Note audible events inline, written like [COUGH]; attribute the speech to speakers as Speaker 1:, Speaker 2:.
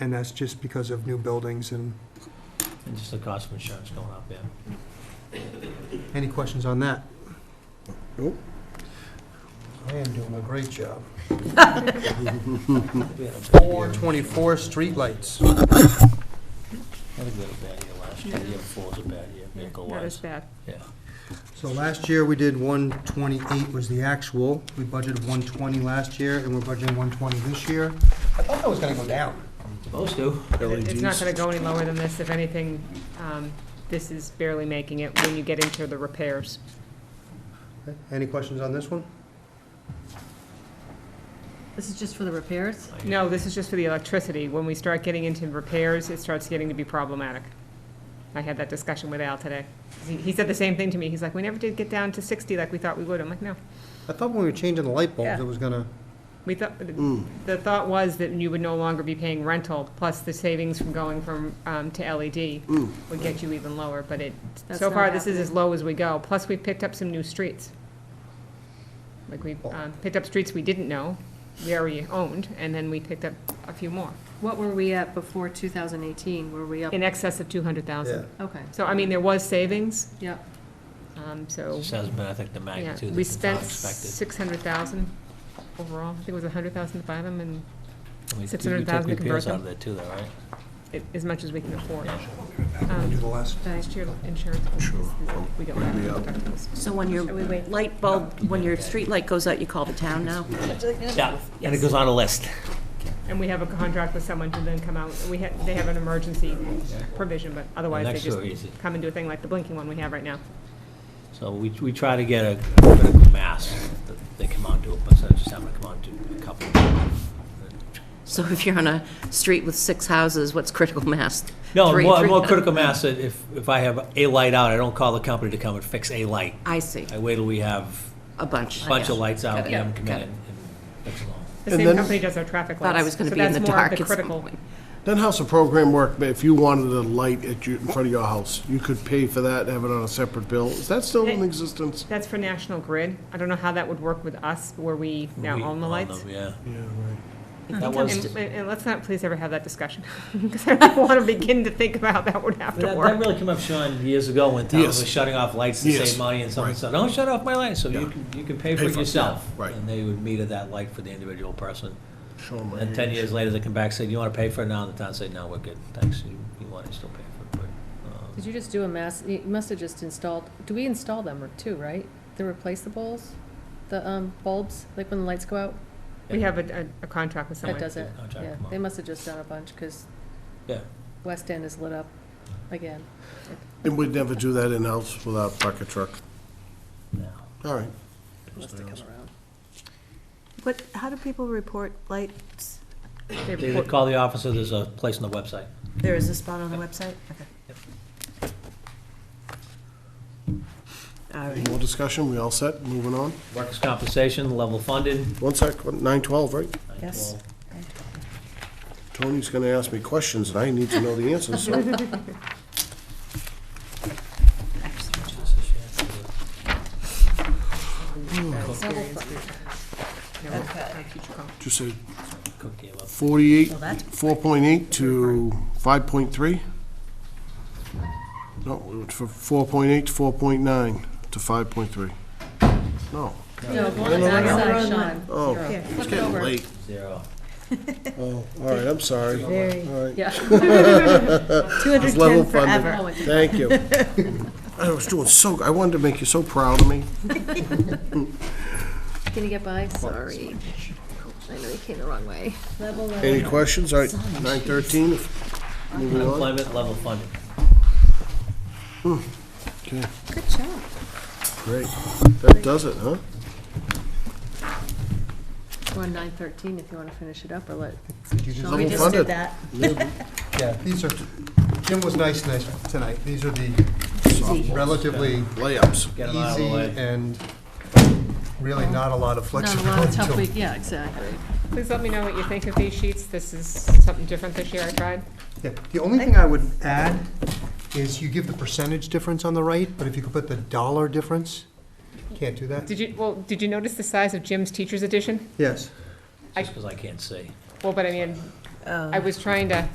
Speaker 1: And that's just because of new buildings and,
Speaker 2: and just the cost of insurance going up, yeah.
Speaker 1: any questions on that?
Speaker 3: Nope.
Speaker 1: I am doing a great job.
Speaker 2: We had a bad year.
Speaker 1: Four twenty-four streetlights.
Speaker 2: I think we had a bad year last year, the year before was a bad year, vehicle
Speaker 4: That is
Speaker 2: wise,
Speaker 4: bad.
Speaker 2: yeah.
Speaker 1: So last year, we did one twenty-eight was the actual. We budgeted one twenty last year, and we're budgeting one twenty this year. I thought that was gonna go down.
Speaker 2: Supposed to.
Speaker 4: It- It's not gonna go any lower than this. If anything, um, this is barely making it when you get into the repairs.
Speaker 1: Okay, Any questions on this one?
Speaker 5: This is just for the repairs?
Speaker 4: No, this is just for the electricity. When we start getting into repairs, it starts getting to be problematic. I had that discussion with Al today. He- He said the same thing to me. He's like, we never did get down to 60 like we thought we would. I'm like, no.
Speaker 1: I thought when we were changing the light bulbs,
Speaker 4: Yeah.
Speaker 1: it was gonna,
Speaker 4: We thought,
Speaker 1: Mm.
Speaker 4: the thought was that you would no longer be paying rental, plus the savings from going from, um, to LED would get you even lower, but it,
Speaker 5: That's
Speaker 4: so
Speaker 5: not
Speaker 4: far, this is
Speaker 5: happening.
Speaker 4: as low as we go. Plus, we picked up some new streets. Like, we, um, picked up streets we didn't know, we already owned, and then we picked up a few more,
Speaker 5: What were we at before 2018? Were we up?
Speaker 4: in excess of two hundred
Speaker 1: yeah.
Speaker 4: thousand.
Speaker 5: Okay,
Speaker 4: So, I mean, there was savings,
Speaker 5: yep.
Speaker 4: um, so,
Speaker 2: Just hasn't been, I think, the
Speaker 4: yeah,
Speaker 2: magnitude
Speaker 4: we
Speaker 2: that's not
Speaker 4: spent
Speaker 2: expected.
Speaker 4: six hundred thousand overall. I think it was a hundred thousand to buy them, and
Speaker 2: And we- we took
Speaker 4: 600,000 to convert
Speaker 2: repairs out
Speaker 4: them.
Speaker 2: of there too, though, right?
Speaker 4: it- as much as we can afford.
Speaker 2: Yeah.
Speaker 1: We'll
Speaker 4: Um,
Speaker 1: do the last.
Speaker 4: Last year, insurance. We don't have.
Speaker 6: So when your light bulb, when your street light goes out, you call the town now?
Speaker 2: Yeah, and it goes on a list.
Speaker 4: And we have a contract with someone to then come out, we have, they have an emergency provision, but otherwise they
Speaker 2: Next
Speaker 4: just
Speaker 2: door, easy.
Speaker 4: come and do a thing like the blinking one we have right now.
Speaker 2: So we, we try to get a a critical mass that they come out to, but instead of just having to come out to a couple.
Speaker 6: So if you're on a street with six houses, what's critical mass?
Speaker 2: No,
Speaker 6: Three-
Speaker 2: more,
Speaker 6: three-
Speaker 2: more critical mass, that if, if I have a light out, I don't call the company to come and fix a light.
Speaker 6: I see,
Speaker 2: I wait till we have
Speaker 6: a bunch.
Speaker 2: a bunch
Speaker 6: Yeah.
Speaker 2: of lights out,
Speaker 6: Got
Speaker 2: and
Speaker 6: it.
Speaker 2: them come in
Speaker 6: Got it.
Speaker 2: and fix them all.
Speaker 4: The
Speaker 3: And
Speaker 4: same
Speaker 3: then-
Speaker 4: company does our traffic lights.
Speaker 6: Thought I was gonna
Speaker 4: so
Speaker 6: be in
Speaker 4: that's
Speaker 6: the
Speaker 4: more of
Speaker 6: dark at some
Speaker 4: critical-
Speaker 6: point.
Speaker 3: Then how's the program work, but if you wanted a light at your, in front of your house, you could pay for that and have it on a separate bill? Is that still in
Speaker 4: Hey.
Speaker 3: existence?
Speaker 4: That's for National Grid. I don't know how that would work with us where we now
Speaker 2: We
Speaker 4: own the lights.
Speaker 2: them, Yeah.
Speaker 3: Yeah, right.
Speaker 2: That
Speaker 4: And,
Speaker 2: was,
Speaker 4: and- and let's not please ever have that discussion, [LAUGHS] because I don't want to begin to think about how that would have
Speaker 2: But
Speaker 4: to
Speaker 2: That, that
Speaker 4: work.
Speaker 2: really came up, Sean, years ago when towns
Speaker 3: Yes.
Speaker 2: were shutting off lights to
Speaker 3: Yes.
Speaker 2: save money and someone
Speaker 3: Right.
Speaker 2: said, don't shut off my light, so you
Speaker 3: Yeah.
Speaker 2: can, you can pay for
Speaker 3: Pay
Speaker 2: it
Speaker 3: for it,
Speaker 2: yourself.
Speaker 3: yeah, right.
Speaker 2: And they would meter that light for the individual person.
Speaker 3: Show 'em right
Speaker 2: And ten
Speaker 3: here.
Speaker 2: years later, they come back and say, you wanna pay for it now? And the town said, no, we're good, thanks, you, you want it, still pay for it, but, um,
Speaker 5: Did you just do a mass, you must have just installed, do we install them or two, right? The replaceables, the um, bulbs, like when the lights go out?
Speaker 4: We have a, a a contract with someone.
Speaker 5: That does it,
Speaker 2: Contract
Speaker 5: yeah.
Speaker 2: them out.
Speaker 5: They must have just done a bunch, because
Speaker 2: yeah.
Speaker 5: West End is lit up again.
Speaker 3: And we'd never do that in-house without a bucket truck.
Speaker 2: No.
Speaker 3: All right.
Speaker 5: Must have come around.
Speaker 7: What, how do people report lights?
Speaker 4: They
Speaker 2: They
Speaker 4: report-
Speaker 2: would call the officer, there's a place on the website.
Speaker 7: There is a spot on the website? Okay. All right.
Speaker 3: Any more discussion? We all set? Moving on?
Speaker 2: Workers' compensation, level funded.
Speaker 3: One sec, nine twelve, right?
Speaker 7: Yes.
Speaker 3: Tony's gonna ask me questions, and I need to know the
Speaker 6: [LAUGHS]
Speaker 3: answers, so.
Speaker 4: No, uh, future call.
Speaker 3: Just say
Speaker 2: Cook gave up.
Speaker 3: forty-eight,
Speaker 6: Well, that's-
Speaker 3: four point eight to five point three? No, we went from four point eight to four point nine to five point three. No.
Speaker 5: No, go on the backside, Sean.
Speaker 3: Oh,
Speaker 5: Zero.
Speaker 3: it's
Speaker 5: Flip it
Speaker 3: getting
Speaker 5: over.
Speaker 3: late.
Speaker 2: Zero.
Speaker 3: Oh, all right, I'm sorry. All
Speaker 7: Very.
Speaker 3: right, [LAUGHS]
Speaker 5: Yeah.
Speaker 3: It's level
Speaker 7: 210
Speaker 3: funded.
Speaker 7: forever.
Speaker 5: Oh, it-
Speaker 3: thank you. I was doing so, I wanted to make you so proud of me.
Speaker 5: Can you get by? Sorry. I know you came the wrong way. Level, level.
Speaker 3: Any questions? All right, nine thirteen, moving on.
Speaker 2: Unemployment, level funded.
Speaker 3: Okay,
Speaker 7: Good job.
Speaker 3: great. That does it, huh?
Speaker 5: We're on nine thirteen if you want to finish it up or let.
Speaker 3: Level
Speaker 6: We
Speaker 3: funded.
Speaker 6: just did that.
Speaker 1: Yeah, these are, Jim was nice nice tonight. These are the relatively
Speaker 3: Layups.
Speaker 2: Get 'em out of the
Speaker 1: easy
Speaker 2: way.
Speaker 1: and really not a lot of
Speaker 5: Not a lot of
Speaker 1: flexibility
Speaker 5: tough
Speaker 1: to
Speaker 5: week, yeah, exactly.
Speaker 4: Please let me know what you think of these sheets. This is something different this year I tried.
Speaker 1: Yeah, The only thing I would add is you give the percentage difference on the right, but if you could put the dollar difference, can't do that?
Speaker 4: Did you, well, did you notice the size of Jim's teacher's edition?
Speaker 1: Yes.
Speaker 2: Just because I can't see.
Speaker 4: Well, but I mean, I was trying to